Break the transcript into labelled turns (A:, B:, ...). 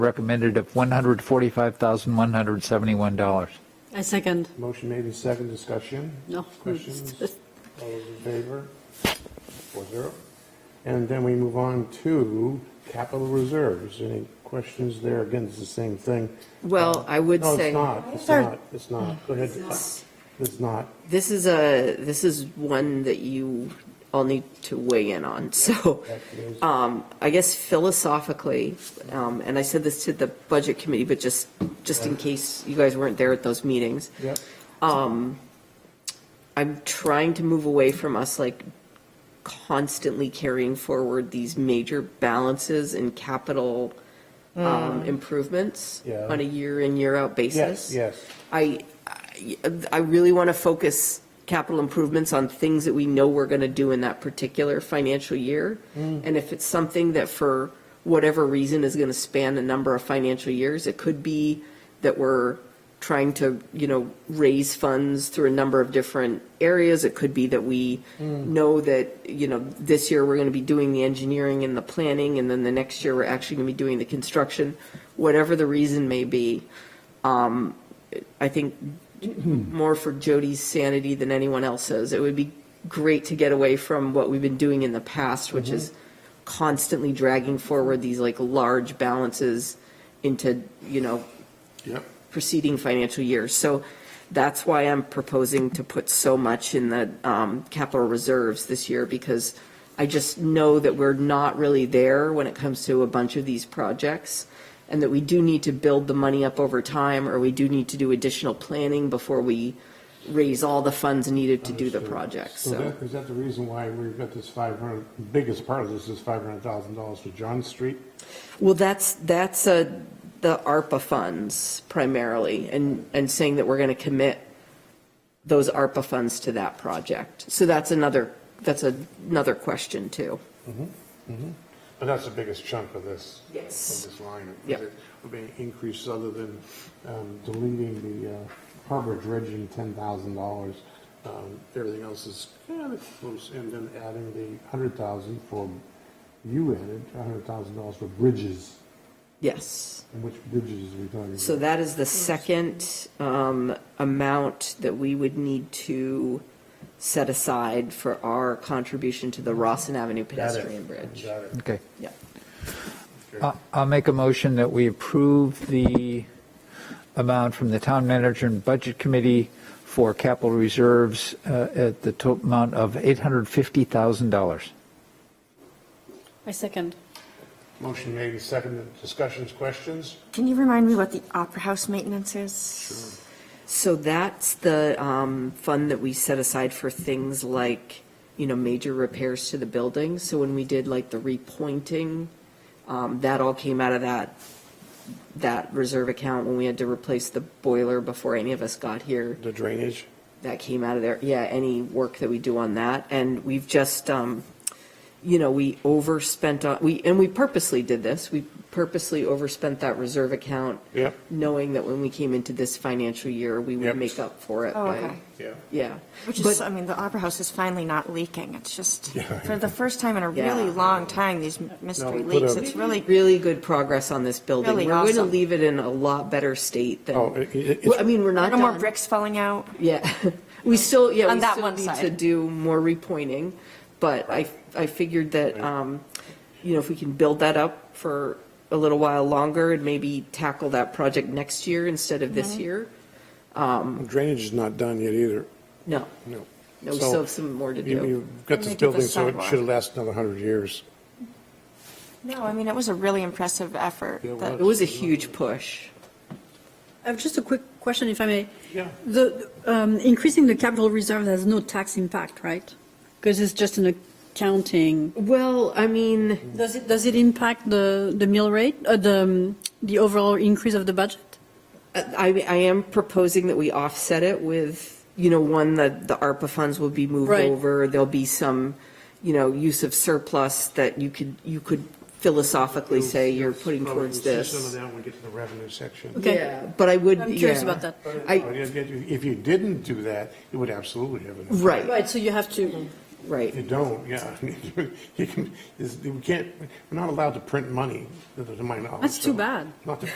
A: recommended of $145,171.
B: I second.
C: Motion made in second discussion.
B: No.
C: Questions? All those in favor? Four zero. And then we move on to capital reserves. Any questions there? Again, it's the same thing.
D: Well, I would
C: Oh. No,
D: say.
C: it's not. It's not. It's not. Go ahead. It's not.
D: This is a, this is one that you all need to weigh in on, so, um, I guess philosophically, um, and I said this to the budget committee, but just, just in case you guys weren't there at those meetings. um,
C: Yep.
D: I'm trying to move away from us like constantly carrying forward these major balances and capital um, improvements
C: Mm. Yeah.
D: on a year in, year out
C: Yes,
D: basis.
C: yes.
D: I, I- I really want to focus capital improvements on things that we know we're going to do in that particular financial year. And if it's something that for whatever reason is going to span a number of financial years, it could be that we're trying to, you know, raise funds through a number of different areas. It could be that we know that, you know, this year we're going to be doing the engineering and the planning, and then the next year we're actually going to be doing the construction, whatever the reason may be. Um, I think more for Jody's sanity than anyone else's. It would be great to get away from what we've been doing in the past, which is constantly dragging forward these like large balances into, you know,
C: Yep.
D: preceding financial years. So that's why I'm proposing to put so much in the um, capital reserves this year, because I just know that we're not really there when it comes to a bunch of these projects, and that we do need to build the money up over time, or we do need to do additional planning before we raise all the funds needed to do the projects,
C: So
D: so.
C: that, is that the reason why we've got this 500, biggest part of this is $500,000 for John Street?
D: Well, that's, that's uh, the ARPA funds primarily, and, and saying that we're going to commit those ARPA funds to that project. So that's another, that's another question, too.
C: But that's the biggest chunk of this.
D: Yes.
C: Of this line.
D: Yep.
C: Would be increases other than um, deleting the uh, harbor dredging ten thousand dollars. Um, Everything else is kind of close, and then adding the hundred thousand for, you added a hundred thousand dollars for bridges.
D: Yes.
C: And which bridges are we talking about?
D: So that is the second um, amount that we would need to set aside for our contribution to the Rossin Avenue
C: Got it.
D: pedestrian bridge.
C: Got it.
A: Okay.
D: Yeah.
A: I- Uh, I'll make a motion that we approve the amount from the Town Manager and Budget Committee for capital reserves uh, at the total amount of $850,000.
B: I second.
C: Motion made, and seconded, discussions, questions?
E: Can you remind me what the Opera House maintenance is?
D: So that's the um, fund that we set aside for things like, you know, major repairs to the building. So when we did like the repointing, um, that all came out of that, that reserve account when we had to replace the boiler before any of us got here.
C: The drainage?
D: That came out of there. Yeah, any work that we do on that. And we've just, um, you know, we overspent on, we, and we purposely did this. We purposely overspent that reserve account
C: Yep.
D: knowing that when we came into this financial year, we
C: Yep.
D: would make up for it.
E: Oh,
D: by-
E: okay.
C: Yeah.
D: Yeah.
E: Which is, I mean, the Opera House is finally not leaking. It's just, for the first time in a really
D: Yeah.
E: long time, these mystery
C: put
E: leaks,
C: a-
E: it's
D: Really,
E: really,
D: really good progress on this building.
E: Really
D: We're going to
E: awesome.
D: leave it in a lot better state than,
C: Oh, it- it-
D: Well, I mean, we're not
E: no more
D: done.
E: bricks falling out.
D: Yeah, we still, yeah,
E: On
D: we
E: that
D: still
E: one
D: need
E: side.
D: to do more repointing, but I, I figured that, um, you know, if we can build that up for a little while longer and maybe tackle that project next year instead of
E: Mm-hmm.
D: this year,
C: Drainage is not done yet either,
D: no,
C: no.
D: no, we
C: So,
D: still have some more to
C: you-
D: do.
C: You've got
E: And
C: this
E: they did the
C: building, so it
E: sidewalk.
C: should last another hundred years.
E: No, I mean, it was a really impressive effort.
C: Yeah, it
E: that-
D: It was a huge push.
B: I have just a quick question, if I may.
C: Yeah.
B: The, um, increasing the capital reserve has no tax impact, right? Because it's just an accounting.
D: Well, I mean.
B: Does it, does it impact the, the mill rate, uh, the, um, the overall increase of the budget?
D: I, I am proposing that we offset it with, you know, one, the, the ARPA funds will be moved
B: Right.
D: over. There'll be some, you know, use of surplus that you could, you could philosophically say you're putting
C: Well,
D: towards
C: we'll see Some of
D: this.
C: that when we get to the revenue section.
B: Okay.
D: Yeah, But I would,
B: I'm curious
D: yeah.
B: about that.
D: I-
C: But If if you didn't do that, it would absolutely have an.
D: Right,
B: Right, so you have to,
D: right?
C: You don't, yeah. You can, is- we can't, we're not allowed to print money, to my knowledge.
B: That's too
C: so-
B: bad.
C: Not to